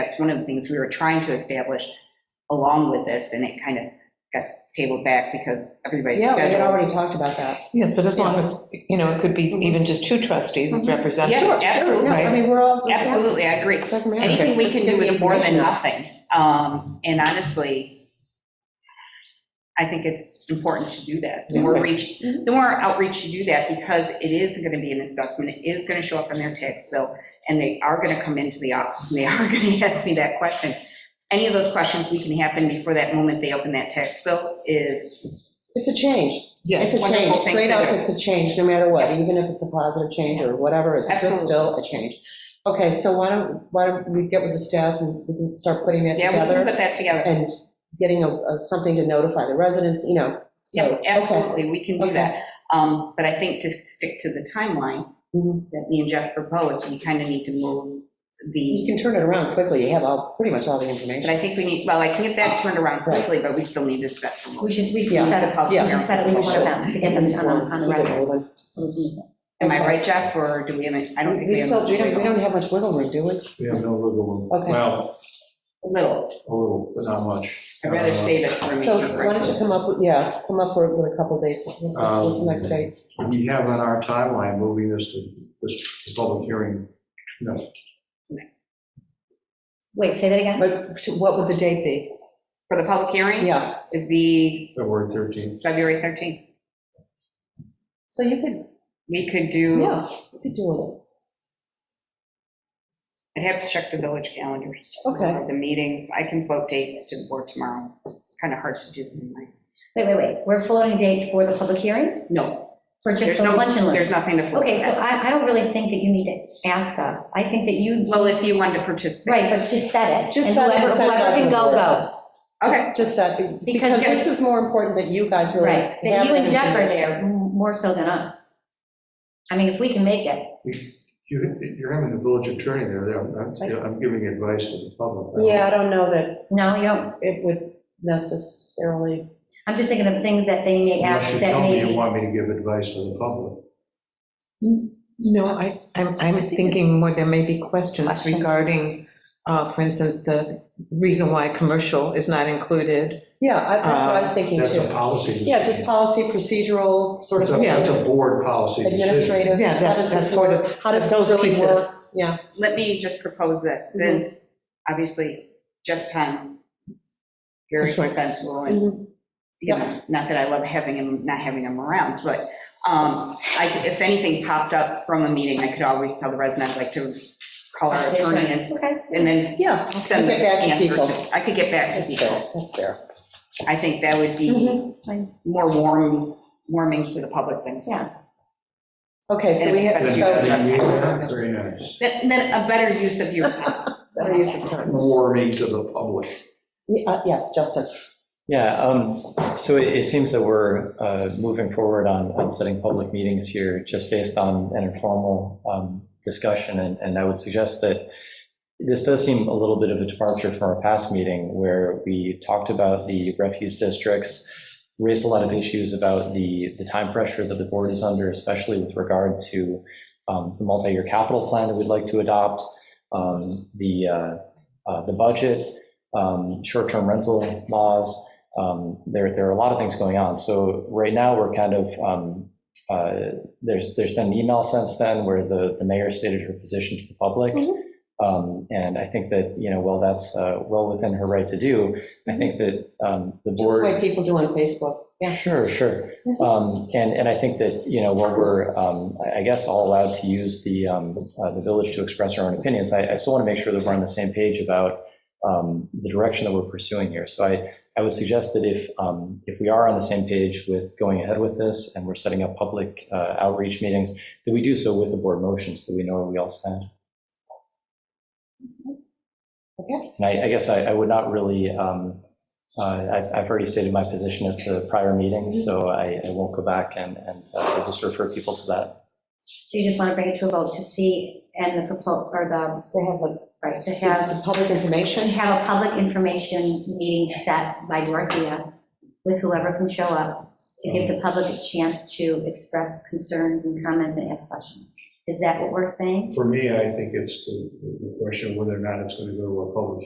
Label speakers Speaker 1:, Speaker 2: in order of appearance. Speaker 1: that's one of the things we were trying to establish along with this, and it kind of got tabled back because everybody's
Speaker 2: Yeah, we had already
Speaker 1: schedules.
Speaker 2: talked about that.
Speaker 3: Yes, but as long as, you know, it could be
Speaker 4: Mm-hmm.
Speaker 3: even just two trustees as
Speaker 1: Sure,
Speaker 3: representatives.
Speaker 1: absolutely.
Speaker 2: No, I mean, we're all.
Speaker 1: Absolutely, I agree.
Speaker 2: Doesn't matter.
Speaker 1: Anything we
Speaker 2: Just
Speaker 1: can
Speaker 2: give
Speaker 1: do
Speaker 2: the
Speaker 1: is more than
Speaker 2: information.
Speaker 1: nothing. Um, And honestly, I think it's important to do that. The more reach, the more outreach you do that, because it is going to be an assessment, it is going to show up on their tax bill, and they are going to come into the office, and they are going to ask me that question. Any of those questions we can happen before that moment they open that tax bill is,
Speaker 2: It's a change. It's
Speaker 3: Yes,
Speaker 2: a
Speaker 1: Wonderful
Speaker 2: change.
Speaker 1: thing
Speaker 2: Straight
Speaker 1: to
Speaker 2: up,
Speaker 1: do.
Speaker 2: it's a change, no matter what, even if it's a positive change or whatever, it's just
Speaker 1: Absolutely.
Speaker 2: still a change. Okay, so why don't, why don't we get with the staff and we can start putting that
Speaker 1: yeah, we can
Speaker 2: together
Speaker 1: put that together.
Speaker 2: and getting a, a- something to notify the residents, you know, so.
Speaker 1: Yeah,
Speaker 2: okay.
Speaker 1: absolutely, we can do
Speaker 2: Okay.
Speaker 1: that. Um, But I think to stick to the timeline,
Speaker 2: Mhm.
Speaker 1: that me and Jeff proposed, we kind of need to move
Speaker 2: You
Speaker 1: the,
Speaker 2: can turn it around quickly, you have all, pretty much all the
Speaker 1: but
Speaker 2: information.
Speaker 1: I think we need, well, I can get that turned around
Speaker 2: Right.
Speaker 1: quickly, but we still need to set for
Speaker 4: We
Speaker 1: motion.
Speaker 4: should, we should
Speaker 2: Yeah,
Speaker 4: set a public,
Speaker 2: yeah.
Speaker 4: we should set at least one of them to get them on, the- on the record. So we
Speaker 1: Am
Speaker 4: can-
Speaker 1: I right, Jeff, or do we have, a- I don't think we
Speaker 2: We
Speaker 1: have.
Speaker 2: still, we don't, we
Speaker 1: a
Speaker 2: don't have much wiggle room, do we?
Speaker 5: We have no wiggle room.
Speaker 2: Okay.
Speaker 5: Well,
Speaker 1: Little,
Speaker 5: a little, but not much. Uh,
Speaker 1: I'd rather save it for a
Speaker 2: So
Speaker 1: major
Speaker 2: why don't you
Speaker 1: crisis.
Speaker 2: come up, with yeah, come up with with a couple dates. What's the- What's the next date?
Speaker 5: Uh, um, We have on our timeline moving this to, this to public hearing. No,
Speaker 4: Wait, say that again?
Speaker 2: But to- what would the date be?
Speaker 1: For the public hearing?
Speaker 2: Yeah,
Speaker 1: It'd be
Speaker 5: February 13th.
Speaker 1: February 13th.
Speaker 2: so you could,
Speaker 1: We could do,
Speaker 2: yeah, you could do it.
Speaker 1: I'd have to check the village calendars.
Speaker 2: Okay.
Speaker 1: or The meetings, I can float dates to the board tomorrow. It's kind of hard to do them in my,
Speaker 4: Wait, wait, wait. We're floating dates for the public hearing?
Speaker 1: no,
Speaker 4: For just
Speaker 1: there's
Speaker 4: the
Speaker 1: no,
Speaker 4: lunch and
Speaker 1: there's
Speaker 4: learn?
Speaker 1: nothing to float.
Speaker 4: Okay, so I, I don't really think that you need to ask us. I think that you,
Speaker 1: Well, if you wanted to participate.
Speaker 4: right, but just set it.
Speaker 2: Just
Speaker 4: And
Speaker 2: set it,
Speaker 4: whoever-
Speaker 2: send it out
Speaker 4: Whoever
Speaker 2: to the
Speaker 4: can go,
Speaker 2: board.
Speaker 4: goes.
Speaker 1: Okay,
Speaker 2: Just that, because this is more important that you guys really.
Speaker 4: Right, that
Speaker 2: have
Speaker 4: you and
Speaker 2: it.
Speaker 4: Jeff are there m- more so than us. I mean, if we can make it.
Speaker 5: You, you're having a village attorney there. I'm, I'm giving advice to the public.
Speaker 2: Yeah, I don't know that
Speaker 4: No, you don't,
Speaker 2: it would necessarily,
Speaker 4: I'm just thinking of things that they may
Speaker 5: Unless
Speaker 4: ask
Speaker 5: you
Speaker 4: that
Speaker 5: tell me
Speaker 4: may
Speaker 5: you
Speaker 4: be.
Speaker 5: want me to give advice to the public.
Speaker 3: no, I, I'm, I'm thinking more, there may be questions
Speaker 4: Questions.
Speaker 3: regarding, uh, for instance, the reason why commercial is not included.
Speaker 2: yeah, I- that's what I was thinking
Speaker 5: Uh, That's a
Speaker 2: too.
Speaker 5: policy. decision.
Speaker 2: Yeah, just policy, procedural, sort of,
Speaker 5: That's a- That's a
Speaker 2: things,
Speaker 5: board policy decision.
Speaker 2: administrative,
Speaker 3: Yeah,
Speaker 2: how
Speaker 3: that's-
Speaker 2: does
Speaker 3: that's
Speaker 2: this
Speaker 3: sort
Speaker 2: work?
Speaker 3: of-
Speaker 2: How does
Speaker 3: those
Speaker 2: this really
Speaker 3: pieces.
Speaker 2: work? Yeah,
Speaker 1: let me just propose this,
Speaker 2: Mhm.
Speaker 1: since obviously Jeff's time, very
Speaker 3: That's right.
Speaker 1: expensive, and,
Speaker 2: Mhm.
Speaker 1: you know, not that I love having him, not having him around, but um, I, if anything popped up from a meeting, I could always tell the resident, I'd like to call our attorney and,
Speaker 4: Okay.
Speaker 1: and then
Speaker 2: yeah,
Speaker 1: send the
Speaker 2: Get back to
Speaker 1: answer
Speaker 2: people.
Speaker 1: to, I could get back to
Speaker 2: that's fair,
Speaker 1: people.
Speaker 2: that's fair.
Speaker 1: I think that would be
Speaker 2: Mhm.
Speaker 4: It's fine.
Speaker 1: more warm, warming to the public than,
Speaker 2: Okay, so we have,
Speaker 1: And
Speaker 5: Then you
Speaker 2: so,
Speaker 1: it's-
Speaker 5: can be there. Very nice.
Speaker 1: then then a better use of your time.
Speaker 2: better use of time.
Speaker 5: Warming to the public.
Speaker 2: Yeah, uh, Yes, Justin.
Speaker 6: Yeah, um, so it it seems that we're uh, moving forward on, on setting public meetings here, just based on an informal um, discussion, and, and I would suggest that this does seem a little bit of a departure from our past meeting, where we talked about the refuse districts, raised a lot of issues about the, the time pressure that the board is under, especially with regard to um, the multi-year capital plan that we'd like to adopt, um, the, uh, uh, the budget, um, short-term rental laws, um, there, there are a lot of things going on. So right now, we're kind of, um, uh, there's, there's been an email since then where the, the mayor stated her position to the public.
Speaker 4: Mhm.
Speaker 6: Um, And I think that, you know, while that's uh, well within her right to do, I think that um,
Speaker 2: Just
Speaker 6: the
Speaker 2: the
Speaker 6: board.
Speaker 2: way people do on Facebook. Yeah. Mm-hmm.
Speaker 6: Sure, sure. Um, And, and I think that, you know, while we're, um, I I guess, all allowed to use the, um, uh, the village to express our own opinions, I, I still want to make sure that we're on the same page about um, the direction that we're pursuing here. So I, I would suggest that if, um, if we are on the same page with going ahead with this and we're setting up public uh, outreach meetings, that we do so with the board motion so that we know where we all stand.
Speaker 2: Mm-hmm. Okay.
Speaker 6: And I, I guess I, I would not really, um, uh, I've, I've already stated my position at the prior meeting, so I, I won't go back and, and uh, I'll just refer people to that.
Speaker 4: So you just want to bring it to a vote to see, and the proposal, or
Speaker 2: They have like,
Speaker 4: the, right, to have,
Speaker 2: have public
Speaker 4: to
Speaker 2: information.
Speaker 4: have a public information meeting set by Dorothea with whoever can show up to give the public a chance to express concerns and comments and ask questions. Is that what we're saying?
Speaker 5: For me, I think it's the the question of whether or not it's going to go to a public